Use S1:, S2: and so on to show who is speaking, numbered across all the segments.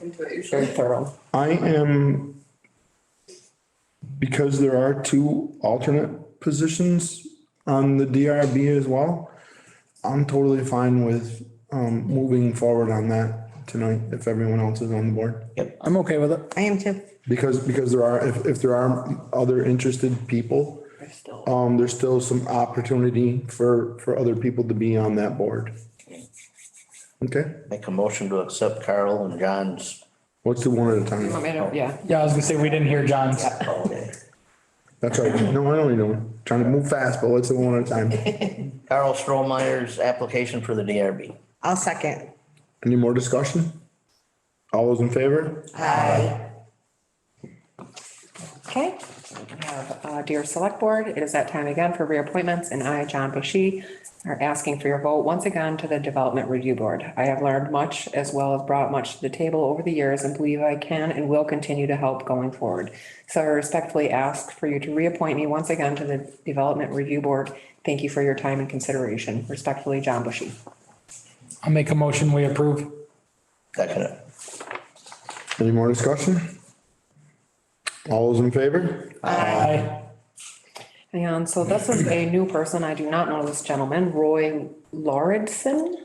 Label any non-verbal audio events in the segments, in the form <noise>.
S1: into it
S2: very
S1: usually.
S2: thorough.
S3: I am, because there are two alternate positions on the DRB as well, I'm totally fine with um, moving forward on that tonight if everyone else is on the board.
S4: I'm okay with it.
S2: I am too.
S3: Because, because there are, if, if there are other interested people, um, there's still some opportunity for, for other people to be on that board. Okay,
S5: Make a motion to accept Carl and John's.
S3: let's do one at a
S1: You want
S3: time.
S1: me to- Yeah,
S4: Yeah, I was gonna say, we didn't hear John's.
S3: That's right. No, I know you don't. Trying to move fast, but let's do one at a time.
S5: Carl Strohmeyer's application for the DRB.
S2: I'll second.
S3: Any more discussion? All those in favor?
S2: Okay.
S1: we have, uh, dear select board, it is that time again for reappointments and I, John Bushy, are asking for your vote once again to the development review board. I have learned much as well as brought much to the table over the years and believe I can and will continue to help going forward. So I respectfully ask for you to reappoint me once again to the development review board. Thank you for your time and consideration. Respectfully, John Bushy.
S4: I'll make a motion, we approve.
S5: Second it.
S3: Any more discussion? All those in favor?
S4: Aye.
S1: And so this is a new person. I do not know this gentleman, Roy Lauridsen.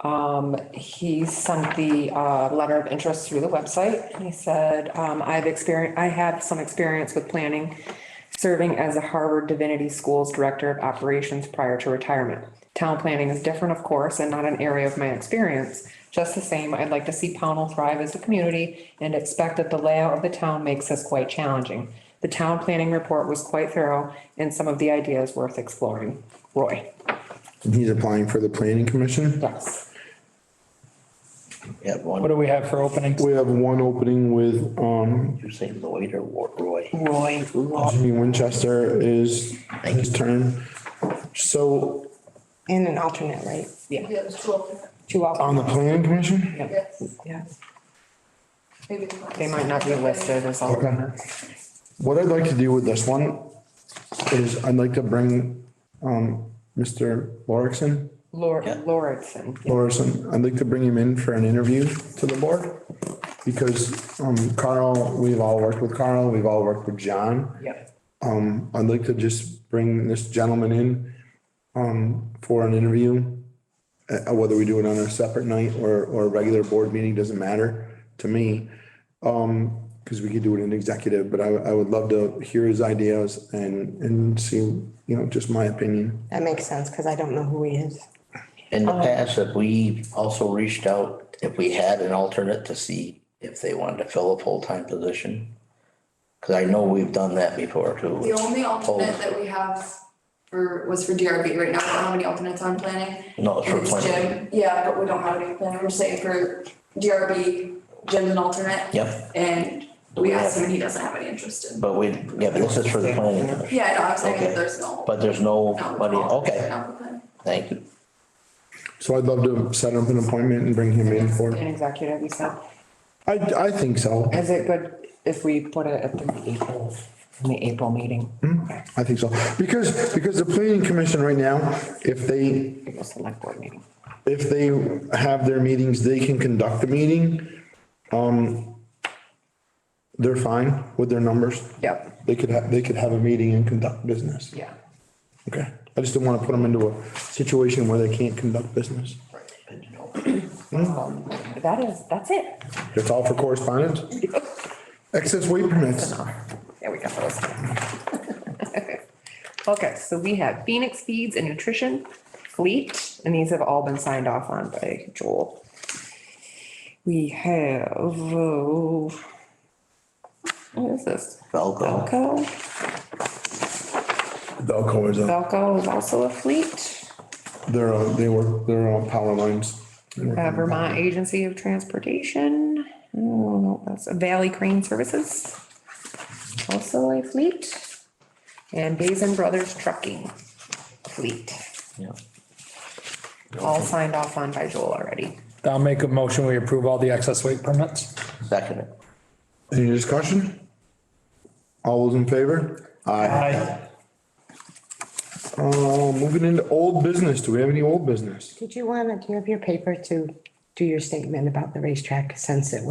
S1: Um, he sent the, uh, letter of interest through the website and he said, um, I've experienced, I have some experience with planning, serving as a Harvard Divinity School's Director of Operations prior to retirement. Town planning is different, of course, and not an area of my experience. Just the same, I'd like to see Pownell thrive as a community and expect that the layout of the town makes this quite challenging. The town planning report was quite thorough and some of the ideas worth exploring. Roy,
S3: And He's applying for the planning commission.
S1: yes.
S5: Yeah,
S4: What
S5: one,
S4: do we have for openings?
S3: We have one opening with, um,
S5: you say Lloyd or Wa- Roy?
S1: Roy
S3: Jimmy Winchester is his term. So
S2: And an alternate, right?
S6: Yeah, it's too open,
S2: Two
S3: on
S2: alternates.
S3: the planning commission,
S6: yes.
S1: Yeah,
S6: Maybe
S1: they might not be listed as all.
S3: what I'd like to do with this one is I'd like to bring, um, Mr. Lorison,
S1: Lor-
S5: Yeah.
S1: Lauritsen.
S3: Lorison, I'd like to bring him in for an interview to the board. Because, um, Carl, we've all worked with Carl, we've all worked with John.
S1: Yep.
S3: Um, I'd like to just bring this gentleman in, um, for an interview. Uh, whether we do it on a separate night or, or a regular board meeting, doesn't matter to me. Um, cause we could do it in executive, but I, I would love to hear his ideas and, and see, you know, just my opinion.
S2: That makes sense because I don't know who he is.
S5: In
S6: Uh-huh.
S5: the past, if we also reached out, if we had an alternate to see if they wanted to fill a full-time position. Cause I know we've done that before too.
S6: The only alternate that we have for, was for DRB right now, we don't have any alternates on planning.
S5: No, it's for
S6: It's Jim,
S5: planning.
S6: yeah, but we don't have any planning, we're just saying for DRB, Jim's an alternate.
S5: Yep,
S6: And we asked him and he doesn't have any interest in,
S5: but we, yeah, but this is for the planning. commission.
S6: yeah, no, I'm saying
S5: Okay.
S6: that there's no.
S5: But there's no,
S6: no
S5: but,
S6: alternates
S5: okay,
S6: right now for planning.
S5: thank you.
S3: So I'd love to set up an appointment and bring him in for,
S1: An executive, you said.
S3: I, I think so.
S1: Is it good if we put it at the April, in the April meeting? Okay,
S3: I think so. Because, because the planning commission right now, if they,
S1: April select board meeting.
S3: if they have their meetings, they can conduct the meeting. Um, they're fine with their numbers.
S1: Yep,
S3: They could have, they could have a meeting and conduct business.
S1: yeah.
S3: Okay. I just didn't want to put them into a situation where they can't conduct business.
S1: <clears throat> Um, That is, that's it.
S3: That's all for correspondence? Excess weight permits.
S1: There we go. <laughs> Okay, so we have Phoenix Feeds and Nutrition, Fleet, and these have all been signed off on by Joel. We have, oh, what is this?
S5: Velcro.
S1: Belco?
S3: Velco is a,
S1: Belco is also a fleet,
S3: they're, uh, they work, they're on power lines. They work
S1: uh,
S3: on-
S1: Vermont Agency of Transportation. Oh, no, that's Valley Crane Services. Also a fleet. And Basin Brothers Trucking Fleet,
S5: Yeah.
S1: all signed off on by Joel already.
S4: I'll make a motion, we approve all the excess weight permits.
S5: Second it.
S3: Any discussion? All those in favor? Aye.
S4: Aye.
S3: Uh, moving into old business. Do we have any old business?
S2: Did you want to, do you have your paper to do your statement about the racetrack since it